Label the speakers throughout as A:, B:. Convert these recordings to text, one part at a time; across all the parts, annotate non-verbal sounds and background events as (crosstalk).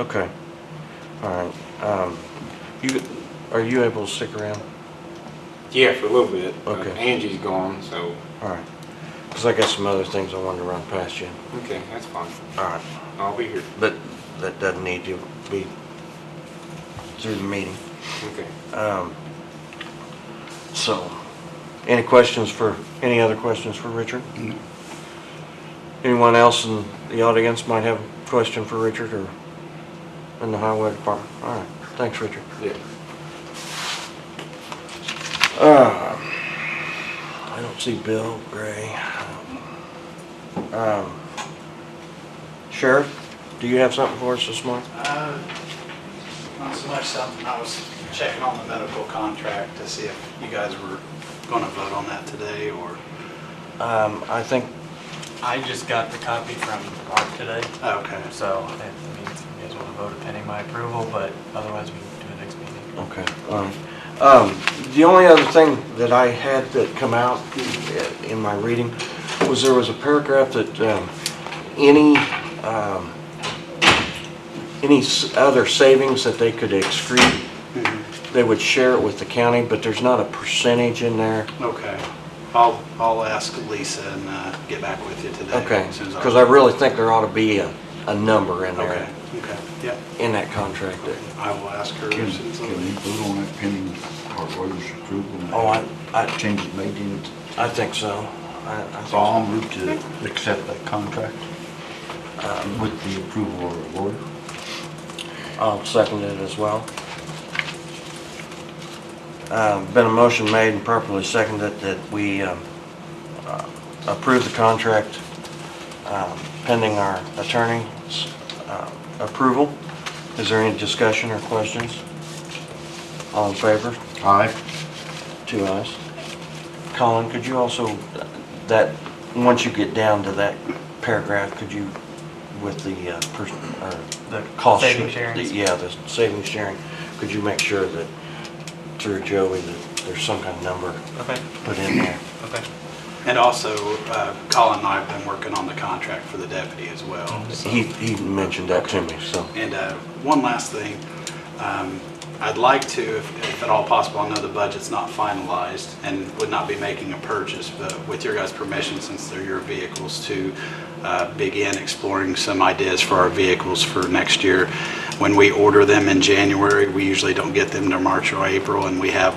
A: Okay, all right. Um, You, are you able to stick around?
B: Yeah, for a little bit. but
A: Okay.
B: Angie's gone, so,
A: All right, because I got some other things I wanted to run past you.
B: okay, that's fine.
A: All right,
B: I'll be here.
A: but that doesn't need to be through the meeting.
B: Okay.
A: Um, So, any questions for, any other questions for Richard? Anyone else in the audience might have a question for Richard or in the highway department? All right, thanks, Richard.
B: Yeah.
A: Uh, I don't see Bill, Gray. Um, Sheriff, do you have something for us this morning?
C: Uh, Not so much something, I was checking on the medical contract to see if you guys were going to vote on that today, or,
A: Um, I think,
D: I just got the copy from Mark today,
C: oh, okay,
D: so I means you guys want to vote pending my approval, but otherwise we can do the next meeting.
A: okay, all right. Um, The only other thing that I had that come out in my reading was there was a paragraph that um, any, um, any s- other savings that they could excrete
C: Mm-hmm.
A: they would share it with the county, but there's not a percentage in there.
C: okay. I'll, I'll ask Lisa and uh, get back with you today.
A: Okay,
C: as soon as
A: because I really think there ought to be a, a number in
C: Okay,
A: there,
C: okay, yeah,
A: in that contract. that-
C: I will ask her.
E: Can,
C: as soon as I
E: can we
C: leave.
E: vote on that pending our lawyer's approval? and
A: Oh, I, I,
E: Changes made in, it?
A: I think so. I- I think
E: so I'll move to accept that contract uh, with the approval of our lawyer.
A: so. I'll second it as well. Uh, Been a motion made and properly seconded that we um, uh, approve the contract um, pending our attorney's uh, approval. Is there any discussion or questions? All in favor?
E: Aye.
A: to us. Colin, could you also, that, once you get down to that paragraph, could you, with the uh, per- or
D: The
A: cost?
D: saving
A: sheet-
D: sharing.
A: the- Yeah, the savings sharing, could you make sure that, through Joey, that there's some kind of number
D: Okay,
A: put in there?
D: okay.
C: And also, uh, Colin and I have been working on the contract for the deputy as well, so.
A: He, he mentioned that to me, so.
C: And uh, one last thing, um, I'd like to, if if at all possible, I know the budget's not finalized and would not be making a purchase, but with your guys' permission, since they're your vehicles, to uh, begin exploring some ideas for our vehicles for next year. When we order them in January, we usually don't get them to March or April, and we have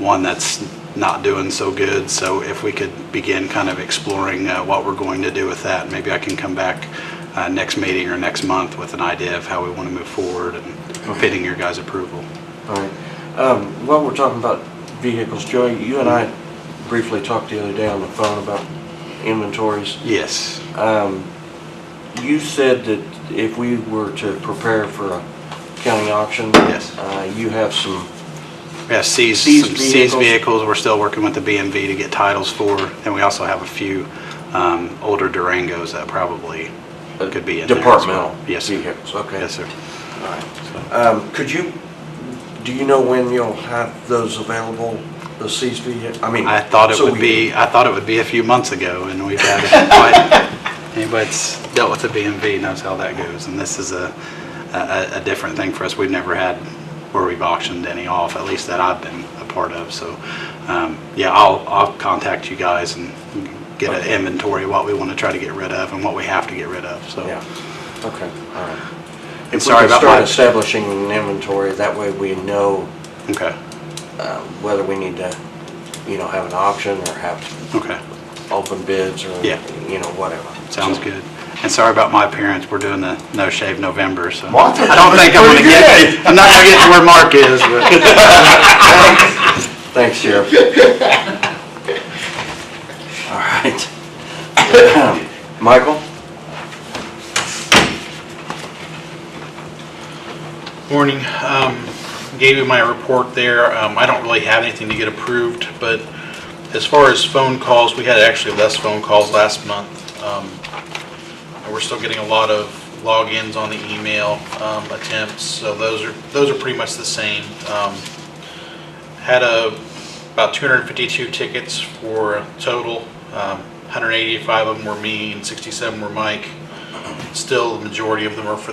C: one that's not doing so good. So if we could begin kind of exploring uh, what we're going to do with that, maybe I can come back uh, next meeting or next month with an idea of how we want to move forward and pending your guys' approval.
A: All right. Um, While we're talking about vehicles, Joey, you and I briefly talked the other day on the phone about inventories.
C: Yes.
A: Um, You said that if we were to prepare for a county auction?
C: Yes.
A: uh, You have some,
C: Yeah, seized,
A: Seized
C: some seized
A: vehicles.
C: vehicles, we're still working with the BMV to get titles for, and we also have a few um, older Durangos that probably could be in there as well.
A: Uh, departmental
C: Yes, sir.
A: vehicles, okay.
C: Yes, sir.
A: Um, Could you, do you know when you'll have those available, the seized vehicles? I mean...
C: I thought it
A: so
C: would
A: we-
C: be,
A: (laughs)
C: I thought it would be a few months ago, and we've had, but anybody that's dealt with the BMV knows how that goes, and this is a, a, a different thing for us. We've never had where we've auctioned any off, at least that I've been a part of, so, um, yeah, I'll, I'll contact you guys and get an inventory, of what we want to try to get rid of and what we have to get rid of, so.
A: Yeah, okay, all right.
C: And sorry about
A: If we could start
C: my,
A: establishing an inventory, that way we know
C: okay,
A: uh, whether we need to, you know, have an auction or have
C: okay.
A: open bids or,
C: Yeah.
A: you know, whatever.
C: Sounds good. And sorry about my appearance, we're doing the No Shave November, so.
E: What?
C: I don't think I'm gonna get, I'm not gonna get to where Mark is, but.
A: Thanks, Sheriff. All right. (clears throat) Michael?
F: Morning. Um, Gave you my report there. Um, I don't really have anything to get approved, but as far as phone calls, we had actually less phone calls last month. Um, and We're still getting a lot of logins on the email um, attempts, so those are, those are pretty much the same. Um, Had a, about 252 tickets for a total. Um, 185 of them were me and 67 were Mike. Still, the majority of them are for the